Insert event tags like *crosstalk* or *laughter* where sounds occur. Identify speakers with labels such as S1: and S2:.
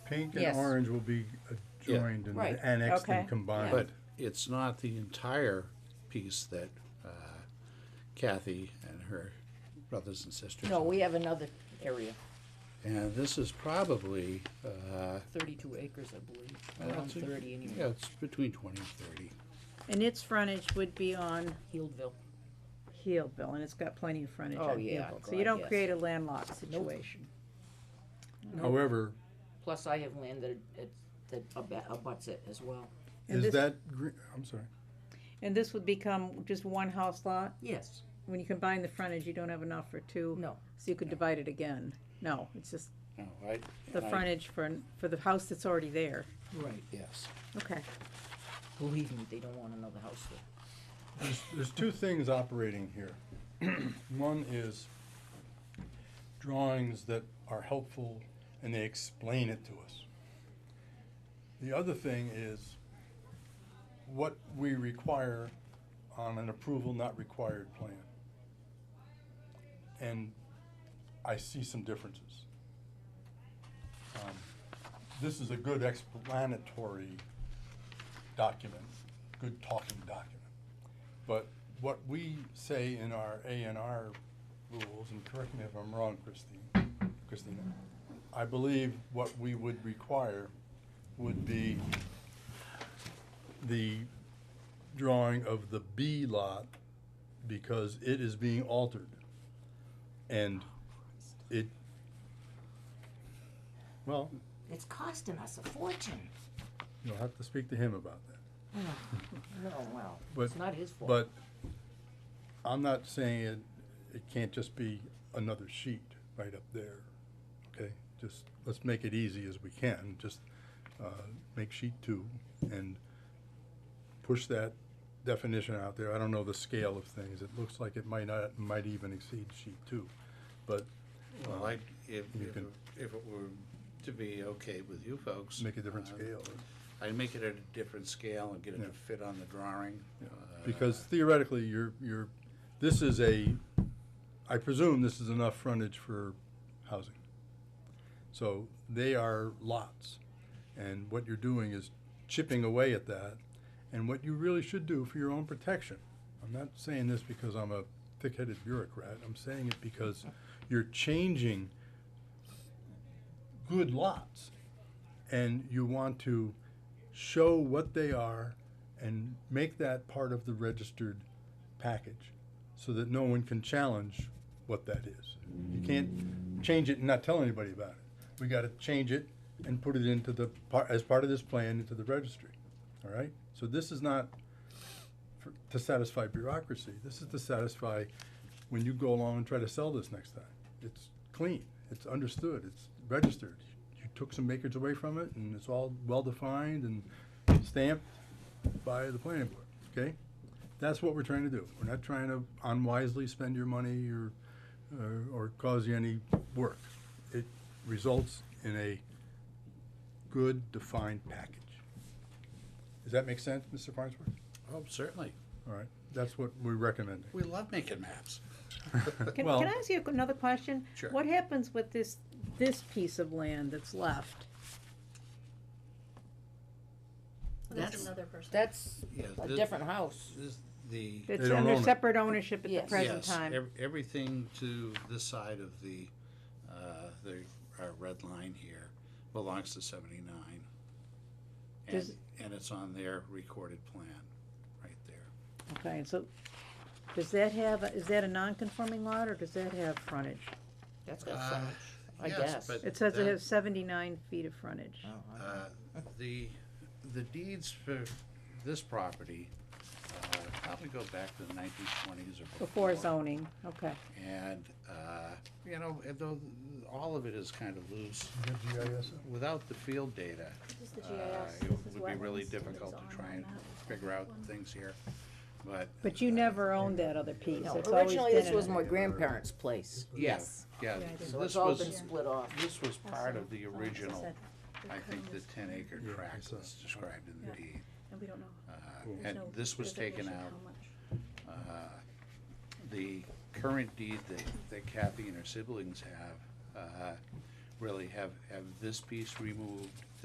S1: Pink and
S2: Yes.
S1: orange will be uh,
S3: Yeah.
S1: joined and
S2: Right,
S1: annexed
S2: okay,
S1: and
S2: yeah.
S1: combined.
S3: But it's not the entire piece that uh, Kathy and her brothers and sisters.
S2: No, we have another area,
S3: And this is probably, uh,
S2: thirty-two acres, I believe,
S3: Well,
S2: around
S3: it's a-
S2: thirty anyway,
S3: yeah, it's between twenty and thirty.
S4: And its frontage would be on
S2: Healdville.
S4: Healdville, and it's got plenty of frontage
S2: Oh,
S4: on
S2: yeah,
S4: Healdville. So you
S2: God,
S4: don't
S2: yes.
S4: create a landlocked situation.
S1: However,
S2: Plus, I have land that, it- that ab- abuts it as well.
S4: And
S1: is
S4: this-
S1: that green, I'm sorry,
S4: And this would become just one house lot?
S2: Yes,
S4: When you combine the frontage, you don't have enough for two?
S2: no,
S4: So you could divide it again? No, it's just
S3: No, Oh, I.
S4: the
S3: I-
S4: frontage for, for the house that's already there.
S2: right.
S3: Yes.
S4: Okay.
S2: Believe me, they don't want another house there.
S1: there's, there's two things operating here. *clears throat* One is drawings that are helpful and they explain it to us. The other thing is what we require on an approval not required plan. And I see some differences. Um, This is a good explanatory document, good talking document. But what we say in our A and R rules, and correct me if I'm wrong, Christine, Christina, I believe what we would require would be the drawing of the B lot because it is being altered. And it, well,
S2: It's costing us a fortune.
S1: you'll have to speak to him about that.
S2: No, well,
S1: But-
S2: it's not his fault.
S1: But I'm not saying it, it can't just be another sheet right up there, okay? Just, let's make it easy as we can, just, uh, make sheet two and push that definition out there. I don't know the scale of things, it looks like it might not, might even exceed sheet two, but
S3: Well, I, if,
S1: You
S3: if,
S1: can-
S3: if it were to be okay with you folks.
S1: make a different
S3: uh,
S1: scale.
S3: I'd make it at a different scale and get it
S1: Yeah.
S3: to fit on the drawing. uh,
S1: Because theoretically, you're, you're, this is a, I presume this is enough frontage for housing. So they are lots, and what you're doing is chipping away at that, and what you really should do for your own protection. I'm not saying this because I'm a thick-headed bureaucrat, I'm saying it because you're changing good lots, and you want to show what they are and make that part of the registered package so that no one can challenge what that is. You can't change it and not tell anybody about it. We gotta change it and put it into the, par- as part of this plan, into the registry, all right? So this is not for- to satisfy bureaucracy, this is to satisfy when you go along and try to sell this next time. It's clean, it's understood, it's registered. You took some acres away from it and it's all well-defined and stamped by the planning board, okay? That's what we're trying to do. We're not trying to unwisely spend your money or, or- or cause you any work. It results in a good defined package. Does that make sense, Mr. Farnsworth?
S3: Oh, certainly.
S1: All right, that's what we're recommending.
S3: We love making maps.
S4: Can,
S1: Well-
S4: can I ask you another question?
S3: Sure.
S4: What happens with this, this piece of land that's left?
S2: That's-
S5: That's another person.
S2: That's
S3: Yeah,
S2: a
S3: this-
S2: different house.
S3: This, the.
S4: It's
S1: don't
S4: under
S1: own it.
S4: separate ownership at the
S2: Yes.
S4: present
S3: yes,
S4: time.
S3: ev- Everything to this side of the, uh, the, our red line here belongs to seventy-nine. And,
S4: Does-
S3: and it's on their recorded plan, right there.
S4: Okay, so does that have, a- is that a non-conforming lot or does that have frontage?
S2: That's got
S3: Uh,
S2: frontage, I
S3: yes,
S2: guess.
S3: but-
S4: It says it
S3: That-
S4: has seventy-nine feet of frontage.
S2: Oh, I-
S3: Uh, The, the deeds for this property, uh, probably go back to the nineteen twenties or before.
S4: Before zoning, okay.
S3: And, uh, you know, and though, all of it is kind of loose,
S1: You have GIS?
S3: without the field data,
S5: This is the
S3: uh,
S5: GIS.
S3: it
S5: This is
S3: would be really
S5: wetlands, and it's
S3: difficult
S5: on
S3: to try
S5: that
S3: and
S5: map.
S3: figure out things here, but.
S4: But you never owned that other piece.
S2: No,
S4: It's always
S2: originally,
S4: been
S2: this
S4: an-
S2: was my grandparents' place,
S3: Yeah,
S2: yes.
S3: Yeah,
S4: Yeah, I did.
S3: this
S2: So it's all been
S3: was,
S2: split off.
S3: this was part of the
S5: Also, uh,
S3: original,
S5: said the
S3: I think, the
S5: covenants,
S3: ten acre
S1: Yeah, I
S3: tract
S1: saw
S3: that's
S1: it.
S3: described in the
S5: Yeah.
S3: deed.
S5: And we don't know.
S3: Uh,
S5: There's
S3: And
S5: no
S3: this was taken
S5: designation
S3: out
S5: how much.
S3: Uh, the current deed that, that Kathy and her siblings have, uh, really have, have this piece removed,